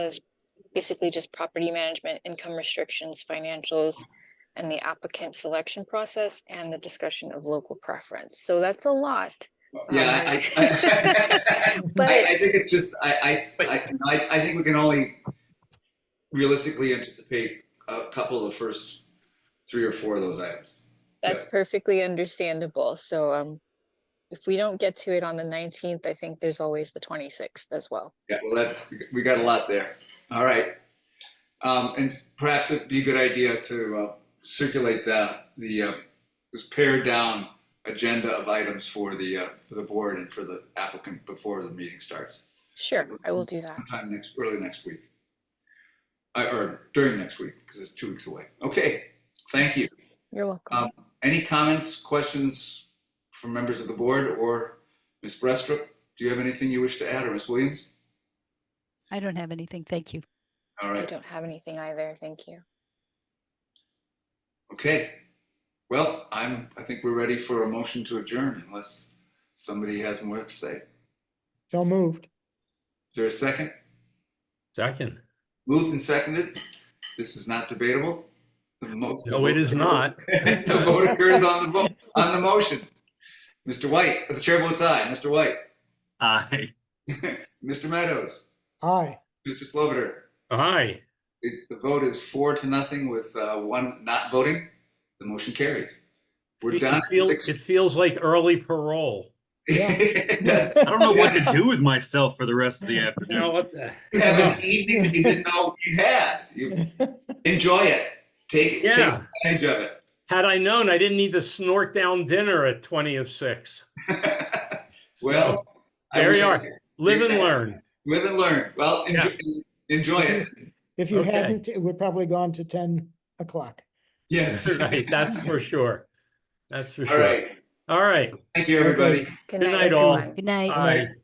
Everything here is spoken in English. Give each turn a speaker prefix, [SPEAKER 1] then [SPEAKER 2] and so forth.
[SPEAKER 1] was basically just property management, income restrictions, financials, and the applicant selection process and the discussion of local preference. So that's a lot.
[SPEAKER 2] Yeah, I, I,
[SPEAKER 1] But-
[SPEAKER 2] I, I think it's just I I, I I I think we can only realistically anticipate a couple of the first three or four of those items.
[SPEAKER 1] That's perfectly understandable. So, um, if we don't get to it on the nineteenth, I think there's always the twenty-sixth as well.
[SPEAKER 2] Yeah, well, that's we got a lot there. All right, um, and perhaps it'd be a good idea to uh, circulate the the uh, this pared down agenda of items for the uh, for the board and for the applicant before the meeting starts.
[SPEAKER 1] Sure, I
[SPEAKER 2] Mm-hmm.
[SPEAKER 1] will do that.
[SPEAKER 2] sometime next, early next week. Uh, Or during next week, because it's two weeks away. Okay, thank you.
[SPEAKER 1] You're welcome.
[SPEAKER 2] Um, Any comments, questions from members of the board or Ms. Brestrup? Do you have anything you wish to add, or Ms. Williams?
[SPEAKER 3] I don't have anything. Thank you.
[SPEAKER 2] All
[SPEAKER 1] I
[SPEAKER 2] right,
[SPEAKER 1] don't have anything either. Thank you.
[SPEAKER 2] okay. Well, I'm, I think we're ready for a motion to adjourn unless somebody has more to say. Is
[SPEAKER 4] So moved.
[SPEAKER 2] there a second?
[SPEAKER 5] Second.
[SPEAKER 2] Moved and seconded? This is not debatable? The mo-
[SPEAKER 5] No, it is not.
[SPEAKER 2] The vote occurs on the mo on the motion. Mr. White, the chair votes aye. Mr. White,
[SPEAKER 6] Aye.
[SPEAKER 2] Mr. Meadows,
[SPEAKER 4] Aye.
[SPEAKER 2] Mr. Sloviter.
[SPEAKER 5] Aye.
[SPEAKER 2] It- The vote is four to nothing with uh, one not voting. The motion carries. We're
[SPEAKER 5] It- it
[SPEAKER 2] done.
[SPEAKER 5] feel- It feels like early parole.
[SPEAKER 6] I don't know what to do with myself for the rest of the
[SPEAKER 5] You know
[SPEAKER 6] afternoon.
[SPEAKER 5] what? the-
[SPEAKER 2] You have an evening that you didn't know you had. You enjoy it. Take, take
[SPEAKER 5] Yeah.
[SPEAKER 2] advantage of it.
[SPEAKER 5] Had I known, I didn't need to snort down dinner at 20 of six.
[SPEAKER 2] well, I
[SPEAKER 5] There
[SPEAKER 2] wish
[SPEAKER 5] you
[SPEAKER 2] I
[SPEAKER 5] are.
[SPEAKER 2] could
[SPEAKER 5] Live and learn.
[SPEAKER 2] Live and learn. Well, enjoy, enjoy it.
[SPEAKER 4] If you
[SPEAKER 5] Okay.
[SPEAKER 4] hadn't, it would probably gone to ten o'clock.
[SPEAKER 2] Yes.
[SPEAKER 5] Right. That's for sure. That's for
[SPEAKER 2] All
[SPEAKER 5] sure.
[SPEAKER 2] right.
[SPEAKER 5] All right.
[SPEAKER 2] Thank you, everybody.
[SPEAKER 1] Good
[SPEAKER 5] Good
[SPEAKER 1] night,
[SPEAKER 5] night, all.
[SPEAKER 1] everyone.
[SPEAKER 3] Good night.
[SPEAKER 5] Aye.